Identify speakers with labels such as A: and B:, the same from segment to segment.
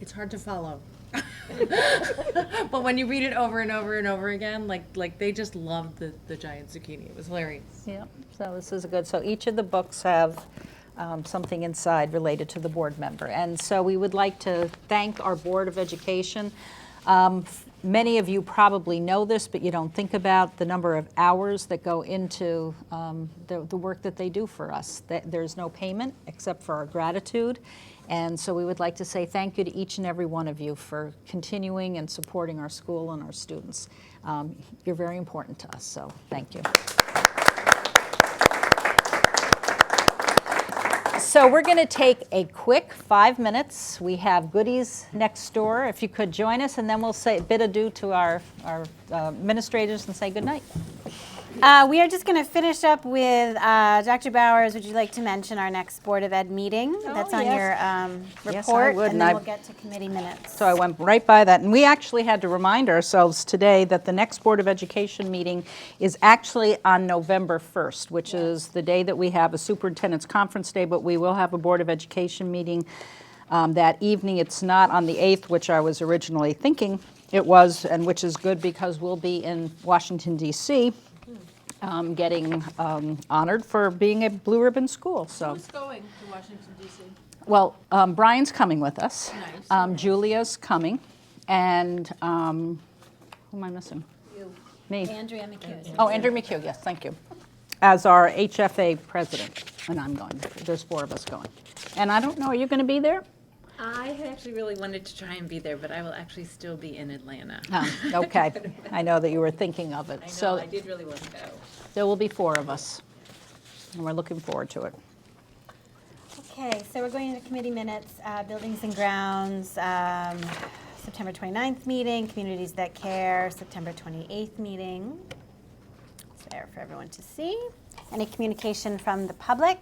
A: it's hard to follow. but when you read it over and over and over again, like like they just loved the, the giant zucchini. It was hilarious.
B: Yeah, so this is good. So each of the books have um, something inside related to the board member. And so we would like to thank our Board of Education. Um, f- Many of you probably know this, but you don't think about the number of hours that go into um, the the work that they do for us. Th- There's no payment except for our gratitude. And so we would like to say thank you to each and every one of you for continuing and supporting our school and our students. Um, You're very important to us, so thank you. So we're going to take a quick five minutes. We have goodies next door. If you could join us, and then we'll say bid adieu to our, our uh, administrators and say goodnight.
C: Uh, we are just going to finish up with uh, Dr. Bowers. Would you like to mention our next Board of Ed meeting? That's on
B: yes.
C: your um, report,
B: Yes, I would,
C: and
B: and
C: then
B: I-
C: we'll get to committee minutes.
B: So I went right by that. And we actually had to remind ourselves today that the next Board of Education meeting is actually on November 1st, which is the day that we have a superintendent's conference day, but we will have a Board of Education meeting um, that evening. It's not on the 8th, which I was originally thinking it was, and which is good because we'll be in Washington DC um, getting um, honored for being a Blue Ribbon school, so.
D: Who's going to Washington DC?
B: Well, um, Brian's coming with us.
D: Nice.
B: Um, Julia's coming, and um, who am I missing? Me.
C: Andrea McHugh.
B: Oh, Andrew McHugh, yes, thank you. As our HFA president, and I'm going. There's four of us going. And I don't know, are you going to be there?
E: I had actually really wanted to try and be there, but I will actually still be in Atlanta.
C: Oh,
B: Um, Okay, I know that you were thinking of it.
E: I know,
B: So
E: I did really want to go.
B: there will be four of us, and we're looking forward to it.
C: Okay, so we're going into committee minutes, uh, buildings and grounds, um, September 29th meeting, communities that care, September 28th meeting. It's there for everyone to see. Any communication from the public?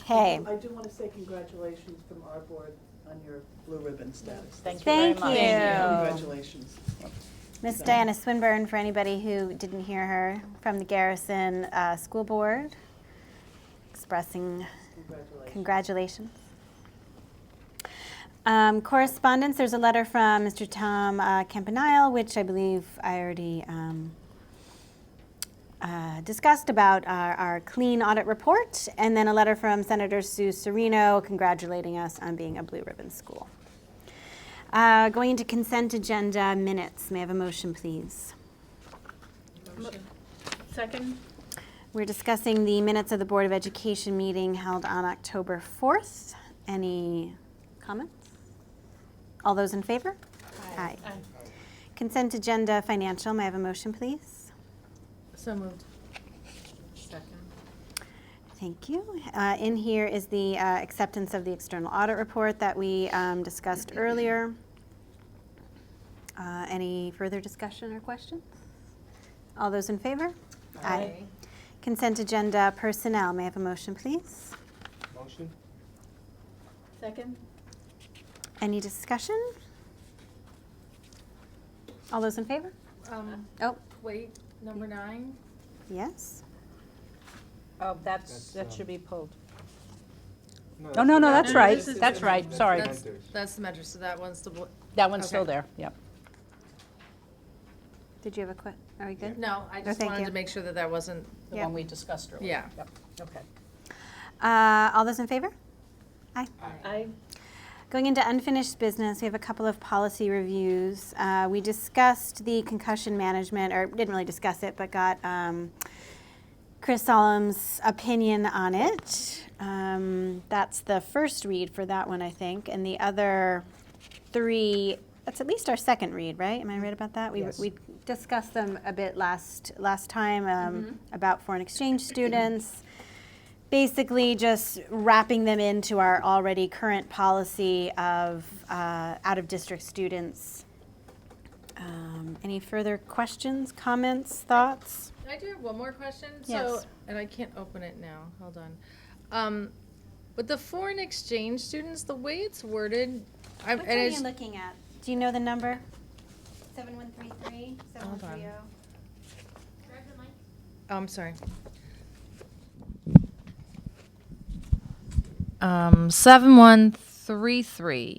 C: Okay.
F: I do want to say congratulations from our board on your blue ribbon status.
B: Thank you very
C: Thank
B: much.
C: you.
F: Congratulations.
C: Miss Diana Swinburne, for anybody who didn't hear her, from the Garrison uh, School Board, expressing
F: Congratulations.
C: congratulations. Um, Correspondence, there's a letter from Mr. Tom uh, Campanile, which I believe I already um, uh, discussed about our our clean audit report, and then a letter from Senator Sue Serino congratulating us on being a blue ribbon school. Uh, Going into consent agenda minutes, may I have a motion, please?
E: Second?
C: We're discussing the minutes of the Board of Education meeting held on October 4th. Any comments? All those in favor? Aye. Consent agenda financial, may I have a motion, please?
A: So moved.
E: Second.
C: Thank you. Uh, In here is the uh, acceptance of the external audit report that we um, discussed earlier. Uh, Any further discussion or questions? All those in favor? Consent agenda personnel, may I have a motion, please?
G: Motion?
E: Second?
C: Any discussion? All those in favor?
A: Um,
C: Oh,
A: wait, number nine.
C: yes.
B: Oh, that's,
G: That's, that
B: that
G: um,
B: should
G: should
B: be pulled.
G: that's
B: Oh, no, no,
G: the-
B: that's
A: no,
B: right,
A: this is
B: that's
A: different.
B: right, sorry.
A: That's
G: Mentors.
A: that's the measure. So that one's the bl-
B: That one's still
A: okay.
B: there, yep.
C: Did you have a que, are we good?
A: no. I just
C: thank
A: wanted
C: you.
A: to make sure that that wasn't.
B: The
C: Yeah.
B: one we discussed earlier.
A: Yeah.
B: Yep, okay.
C: Uh, all those in favor?
E: Aye.
C: Going into unfinished business, we have a couple of policy reviews. Uh, we discussed the concussion management, or didn't really discuss it, but got um, Chris Solom's opinion on it. Um, that's the first read for that one, I think, and the other three. That's at least our second read, right? Am I right about that? We,
G: Yes.
C: we discussed them a bit last last time um, about foreign exchange students basically just wrapping them into our already current policy of uh, out-of-district students. Um, Any further questions, comments, thoughts?
A: I do have one more question. So,
C: Yes.
A: and I can't open it now. Hold on. Um, with the foreign exchange students, the way it's worded, I'm and it's,
C: looking at? Do you know the number? 7133,
A: Hold on. Oh, I'm sorry. Um, seven one
H: three three.